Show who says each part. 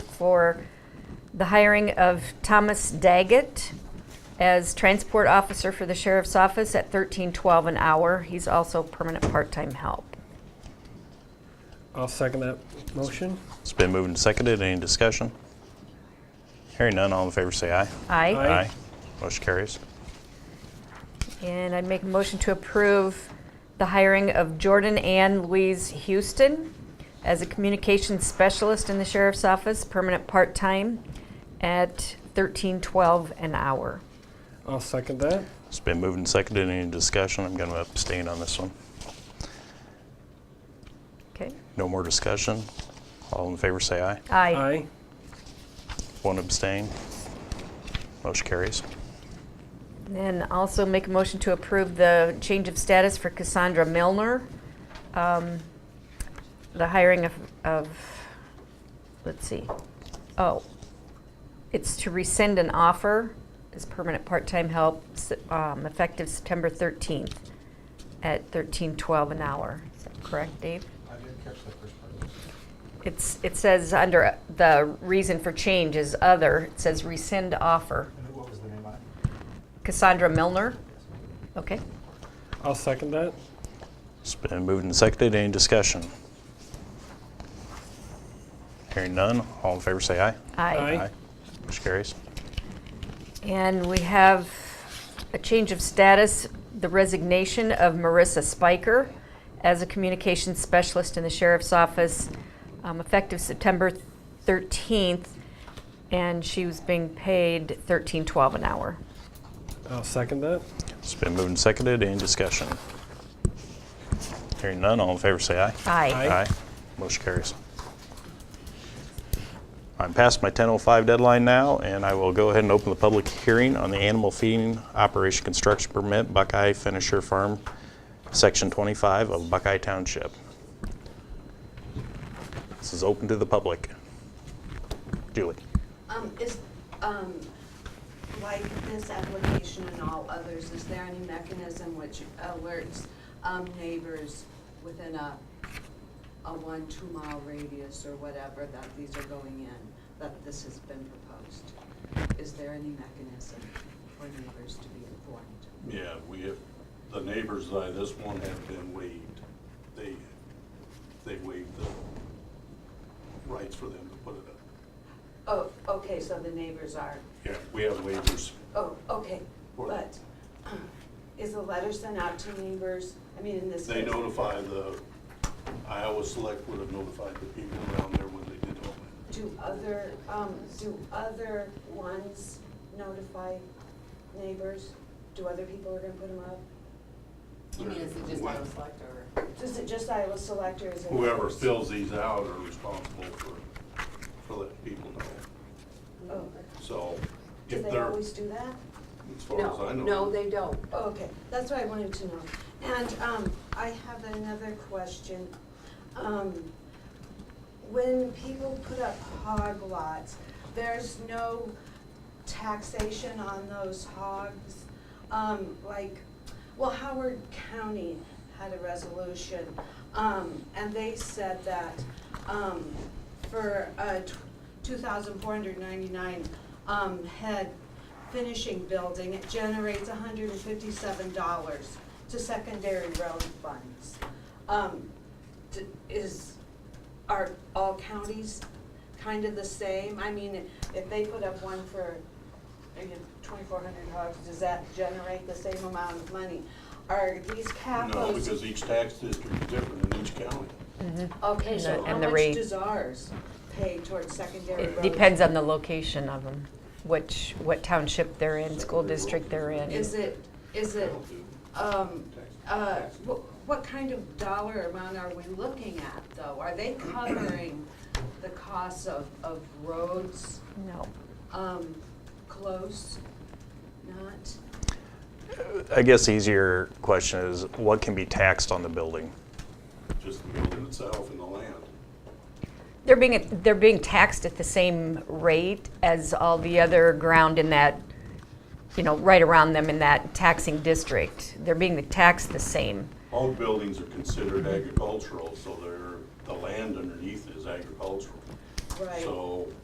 Speaker 1: for the hiring of Thomas Daggett as transport officer for the sheriff's office at thirteen twelve an hour. He's also permanent part-time help.
Speaker 2: I'll second that motion.
Speaker 3: It's been moved and seconded. Any discussion? Hearing none, all in favor say aye.
Speaker 1: Aye.
Speaker 2: Aye.
Speaker 3: Motion carries.
Speaker 1: And I'd make a motion to approve the hiring of Jordan Ann Louise Houston as a communications specialist in the sheriff's office, permanent part-time, at thirteen twelve an hour.
Speaker 2: I'll second that.
Speaker 3: It's been moved and seconded. Any discussion? I'm going to abstain on this one.
Speaker 1: Okay?
Speaker 3: No more discussion. All in favor say aye.
Speaker 1: Aye.
Speaker 2: Aye.
Speaker 3: One abstain. Motion carries.
Speaker 1: And also make a motion to approve the change of status for Cassandra Milner. um, The hiring of, of, let's see, oh, it's to rescind an offer as permanent part-time help, s- um, effective September 13th at 1312 an hour. Is that correct, Dave?
Speaker 4: I didn't catch that first part.
Speaker 1: It's, it says under uh, the reason for change is other, it says rescind offer.
Speaker 4: And who- what was the name on it?
Speaker 1: Cassandra Milner,
Speaker 4: Yes.
Speaker 1: okay?
Speaker 2: I'll second that.
Speaker 3: It's been moved and seconded. Any discussion? Hearing none, all in favor say aye.
Speaker 2: Aye.
Speaker 3: Motion carries.
Speaker 1: And we have a change of status, the resignation of Marissa Spiker as a communications specialist in the sheriff's office, um, effective September 13th, and she was being paid 13.12 an hour.
Speaker 2: I'll second that.
Speaker 3: It's been moved and seconded. Any discussion? Hearing none, all in favor say aye.
Speaker 1: Aye.
Speaker 2: Aye.
Speaker 3: Motion carries. I'm past my 10:05 deadline now, and I will go ahead and open the public hearing on the animal feeding operation construction permit Buckeye Finisher Farm, Section 25 of Buckeye Township. This is open to the public. Julie?
Speaker 5: Um, is, um, like this application and all others, is there any mechanism which alerts, um, neighbors within a, a one, two mile radius or whatever that these are going in, that this has been proposed? Is there any mechanism for neighbors to be informed?
Speaker 6: Yeah, we have, the neighbors by this one have been waived. They, they waived the rights for them to put it up.
Speaker 5: Oh, okay, so the neighbors are,
Speaker 6: Yeah, we have waivers.
Speaker 5: oh, okay,
Speaker 6: Or-
Speaker 5: but is the letter sent out to neighbors? I mean, in this
Speaker 6: They
Speaker 5: case.
Speaker 6: notify the, Iowa Select would have notified the people around there when they did all that.
Speaker 5: Do other, um, do other ones notify neighbors? Do other people are gonna put them up?
Speaker 7: You mean, is it just
Speaker 6: Whoever-
Speaker 7: Iowa Select or?
Speaker 5: Is it just Iowa Select or is it?
Speaker 6: Whoever fills these out are responsible for, for letting people know.
Speaker 5: Oh,
Speaker 6: So
Speaker 5: Do
Speaker 6: if
Speaker 5: they
Speaker 6: they're,
Speaker 5: always
Speaker 6: as
Speaker 5: do that?
Speaker 6: far as I know.
Speaker 7: No, they don't.
Speaker 5: Oh, okay, that's what I wanted to know. And, um, I have another question. Um, when people put up hog lots, there's no taxation on those hogs? Um, like, well, Howard County had a resolution, um, and they said that, um, for, uh, two thousand four hundred ninety-nine, um, head finishing building, it generates hundred and fifty-seven dollars to secondary road funds. Um, d- is, are all counties kind of the same? I mean, if they put up one for, again, twenty-four hundred hogs, does that generate the same amount of money? Are these capos?
Speaker 6: No, because each tax district is different in each county.
Speaker 5: Okay,
Speaker 1: And
Speaker 5: so
Speaker 1: the-
Speaker 5: how
Speaker 1: and the
Speaker 5: much
Speaker 1: rate.
Speaker 5: does ours pay towards secondary road?
Speaker 1: It depends on the location of them, which, what township they're in, school district they're in.
Speaker 5: Is it, is it, um, uh, what, what kind of dollar amount are we looking at, though? Are they covering the costs of, of roads,
Speaker 1: No.
Speaker 5: um, close? Not?
Speaker 3: I guess the easier question is, what can be taxed on the building?
Speaker 6: Just the building itself and the land.
Speaker 1: They're being, they're being taxed at the same rate as all the other ground in that, you know, right around them in that taxing district. They're being taxed the same.
Speaker 6: All buildings are considered agricultural, so they're, the land underneath is agricultural.
Speaker 5: Right.
Speaker 6: So